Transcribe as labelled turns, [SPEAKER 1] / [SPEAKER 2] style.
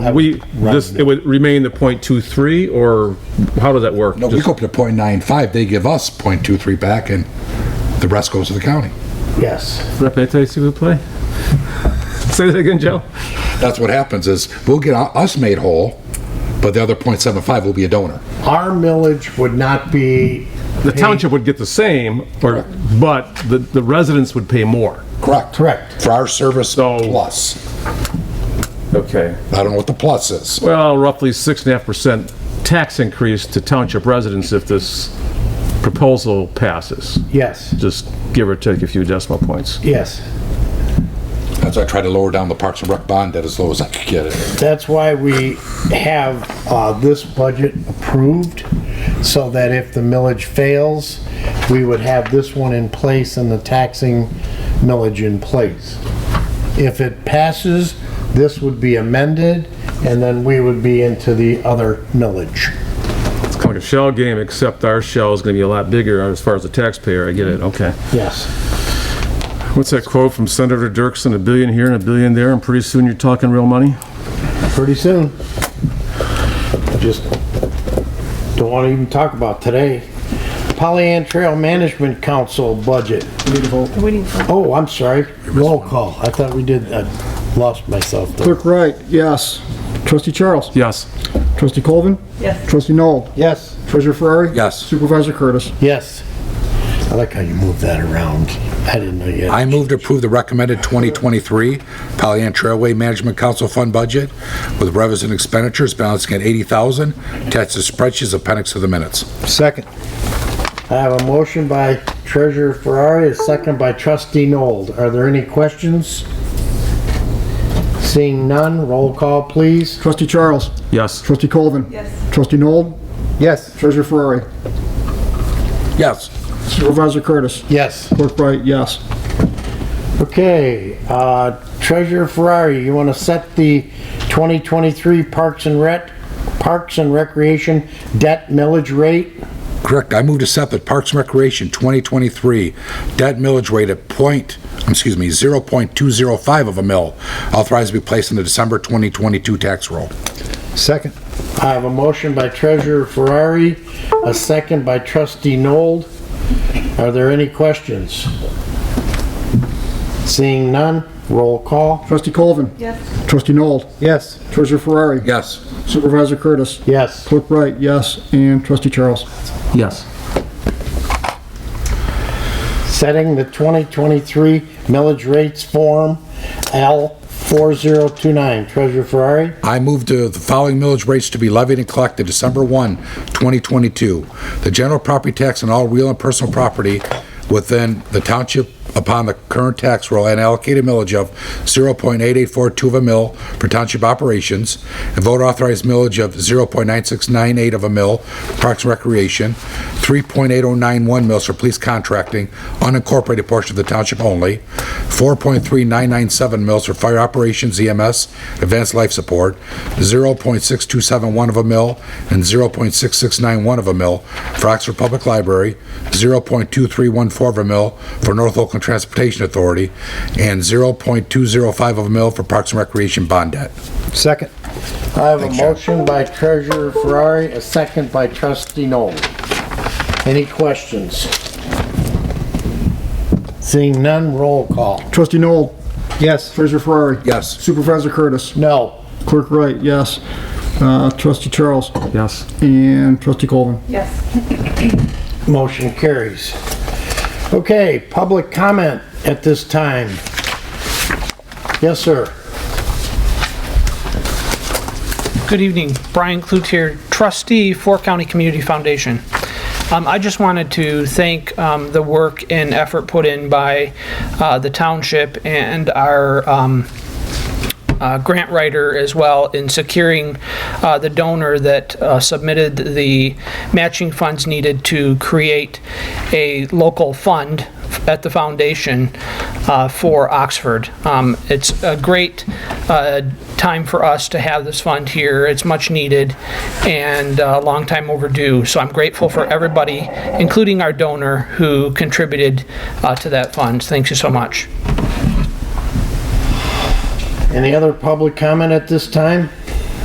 [SPEAKER 1] We, this, it would remain the point two three, or how does that work?
[SPEAKER 2] No, we
[SPEAKER 1] Just-
[SPEAKER 2] go up to point nine five, they give us point two three back, and the rest goes to the county.
[SPEAKER 3] Yes.
[SPEAKER 1] Repete, s'il vous plaît. Say that again, Joe?
[SPEAKER 2] That's what happens, is we'll get u- us made whole, but the other point seven five will be a donor.
[SPEAKER 3] Our millage would not be.
[SPEAKER 1] The
[SPEAKER 3] paid-
[SPEAKER 1] township would get the same, or, but the, the residents would pay more.
[SPEAKER 2] Correct.
[SPEAKER 3] Correct.
[SPEAKER 2] For our service
[SPEAKER 1] So-
[SPEAKER 2] plus.
[SPEAKER 1] Okay.
[SPEAKER 2] I don't know what the plus is.
[SPEAKER 1] Well, roughly six and a half percent tax increase to township residents if this proposal passes.
[SPEAKER 3] Yes,
[SPEAKER 1] Just give or take a few decimal points.
[SPEAKER 3] yes.
[SPEAKER 2] That's why I try to lower down the Parks and Rec bond debt as low as I could get it.
[SPEAKER 3] That's why we have uh, this budget approved, so that if the millage fails, we would have this one in place and the taxing millage in place. If it passes, this would be amended, and then we would be into the other millage.
[SPEAKER 1] It's kind of like a shell game, except our shell is gonna be a lot bigger as far as the taxpayer. I get it, okay.
[SPEAKER 3] Yes.
[SPEAKER 1] What's that quote from Senator Dirksen? A billion here and a billion there, and pretty soon you're talking real money?
[SPEAKER 3] Pretty soon. Just don't want to even talk about today. Pollyant Trail Management Council budget. Oh, I'm sorry. Roll call. I thought we did, I lost myself. there.
[SPEAKER 4] Clerk Wright, yes. Trustee Charles?
[SPEAKER 1] Yes.
[SPEAKER 4] Trustee Colvin?
[SPEAKER 5] Yes.
[SPEAKER 4] Trustee Noel?
[SPEAKER 3] Yes,
[SPEAKER 4] Treasurer Ferrari?
[SPEAKER 2] Yes.
[SPEAKER 4] Supervisor Curtis?
[SPEAKER 3] yes. I like how you moved that around. I didn't know yet.
[SPEAKER 2] I move to approve the recommended 2023 Pollyann Trailway Management Council Fund budget with revenues and expenditures balancing at 80,000, attached to spreadsheets appendix of the minutes.
[SPEAKER 4] Second.
[SPEAKER 3] I have a motion by Treasurer Ferrari, a second by Trustee Nold. Are there any questions? Seeing none, roll call, please.
[SPEAKER 4] Trustee Charles?
[SPEAKER 1] Yes.
[SPEAKER 4] Trustee Colvin?
[SPEAKER 5] Yes.
[SPEAKER 4] Trustee Noel?
[SPEAKER 3] Yes.
[SPEAKER 4] Treasurer Ferrari?
[SPEAKER 2] Yes.
[SPEAKER 4] Supervisor Curtis?
[SPEAKER 3] Yes.
[SPEAKER 4] Clerk Wright, yes.
[SPEAKER 3] Okay, uh, Treasurer Ferrari, you want to set the 2023 Parks and Rec, Parks and Recreation debt millage rate?
[SPEAKER 2] Correct. I move to set the Parks and Recreation 2023 debt millage rate at point, excuse me, 0.205 of a mill, authorized to be placed in the December 2022 tax roll.
[SPEAKER 4] Second.
[SPEAKER 3] I have a motion by Treasurer Ferrari, a second by Trustee Nold. Are there any questions? Seeing none, roll call.
[SPEAKER 4] Trustee Colvin?
[SPEAKER 5] Yes.
[SPEAKER 4] Trustee Noel?
[SPEAKER 3] Yes.
[SPEAKER 4] Treasurer Ferrari?
[SPEAKER 2] Yes.
[SPEAKER 4] Supervisor Curtis?
[SPEAKER 3] Yes.
[SPEAKER 4] Clerk Wright, yes. And Trustee Charles?
[SPEAKER 1] Yes.
[SPEAKER 3] Setting the 2023 millage rates form L4029. Treasurer Ferrari?
[SPEAKER 2] I move to the following millage rates to be levied and collected December 1, 2022. The general property tax on all real and personal property within the township upon the current tax roll and allocated millage of 0.8842 of a mill for township operations, and voter authorized millage of 0.9698 of a mill for parks and recreation, 3.8091 mills for police contracting, unincorporated portion of the township only, 4.3997 mills for fire operations, EMS, advanced life support, 0.6271 of a mill, and 0.6691 of a mill for Oxford Public Library, 0.2314 of a mill for North Oakland Transportation Authority, and 0.205 of a mill for Parks and Recreation bond debt.
[SPEAKER 4] Second.
[SPEAKER 3] I have a motion by Treasurer Ferrari, a second by Trustee Noel. Any questions? Seeing none, roll call.
[SPEAKER 4] Trustee Noel? Yes. Treasurer Ferrari?
[SPEAKER 2] Yes.
[SPEAKER 4] Supervisor Curtis?
[SPEAKER 3] No.
[SPEAKER 4] Clerk Wright, yes. Uh, Trustee Charles?
[SPEAKER 1] Yes.
[SPEAKER 4] And Trustee Colvin?
[SPEAKER 5] Yes.
[SPEAKER 3] Motion carries. Okay, public comment at this time. Yes, sir.
[SPEAKER 6] Good evening, Brian Klute here, trustee for County Community Foundation. Um, I just wanted to thank um, the work and effort put in by uh, the township and our um, uh, grant writer as well in securing uh, the donor that uh, submitted the matching funds needed to create a local fund at the foundation uh, for Oxford. Um, It's a great uh, time for us to have this fund here. It's much needed and a long time overdue. So I'm grateful for everybody, including our donor, who contributed uh, to that fund. Thank you so much.
[SPEAKER 3] Any other public comment at this time?